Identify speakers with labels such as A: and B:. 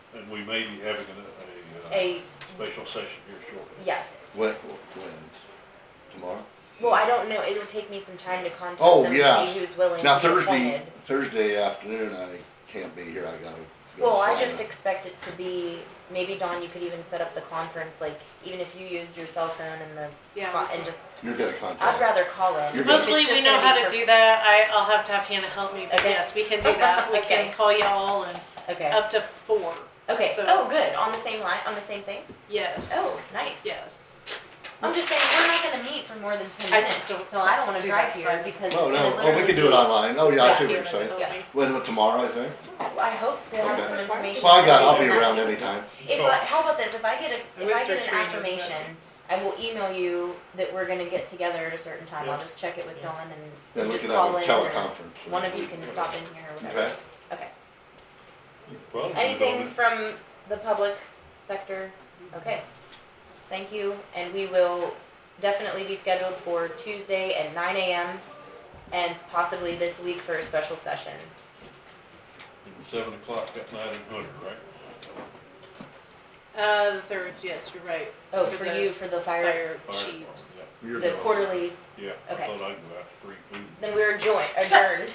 A: and we may be having a, a, uh,
B: a,
A: special session here shortly.
B: yes.
C: When, when? Tomorrow?
B: Well, I don't know, it'll take me some time to contact
C: Oh,
B: them
C: yeah.
B: to see who's willing
C: Now
B: to be
C: Thursday,
B: appointed.
C: Thursday afternoon, I can't be here, I gotta go
B: Well, I
C: sign
B: just
C: it.
B: expect it to be, maybe Dawn, you could even set up the conference, like, even if you used your cell phone and the,
D: Yeah.
B: co- and just,
C: You're gonna
B: I'd
C: contact.
B: rather call it. if
C: You're
B: it's
D: Supposedly,
B: just
D: we know
B: gonna
D: how
B: be
D: to
B: for-
D: do that. I, I'll have to have Hannah help me, but
B: Okay.
D: yes, we can do that. We
B: Okay.
D: can call y'all and
B: Okay,
D: up to four.
B: okay,
D: so-
B: oh, good, on the same line, on the same thing?
D: Yes.
B: Oh, nice.
D: Yes.
B: I'm just saying, we're not gonna meet for more than ten
D: I
B: minutes,
D: just
B: so
D: don't
B: I don't wanna
D: do
B: drive
D: that,
B: here
D: so-
B: because
C: No,
B: it's gonna
C: no, oh, we
B: literally
C: can do it
B: be-
C: online, oh, yeah, I
B: Yeah.
C: see what
D: Here,
C: you're saying.
D: that'll be-
C: When, tomorrow, I think?
B: I hope to have
C: Okay.
B: some information.
C: Well, I got, I'll be
B: for you.
C: around anytime.
B: If I, how about this, if I get a, if
D: With
B: I
D: your
B: get an
D: training,
B: affirmation, I will email you that we're gonna get together at a certain time, I'll just check it with Dawn
C: Then
B: and
C: we
B: just
C: can have
B: call
C: a
B: in or
C: teleconference.
B: one of you can stop in here or
C: Okay,
B: whatever. Okay,
A: Well, we
B: anything
A: don't-
B: from the public sector? Okay, thank you, and we will definitely be scheduled for Tuesday at nine AM and possibly this week for a special session.
A: Seven o'clock at night in Hunter, right?
D: Uh, the third, yes, you're right.
B: Oh,
D: For
B: for
D: the
B: you, for the fire,
D: Fire
A: Fire
D: chiefs.
A: department,
C: You're
B: the
C: going.
B: quarterly,
A: Yeah, I
B: Okay.
A: thought I'd go out for free food.
B: then we're adjourned, adjourned.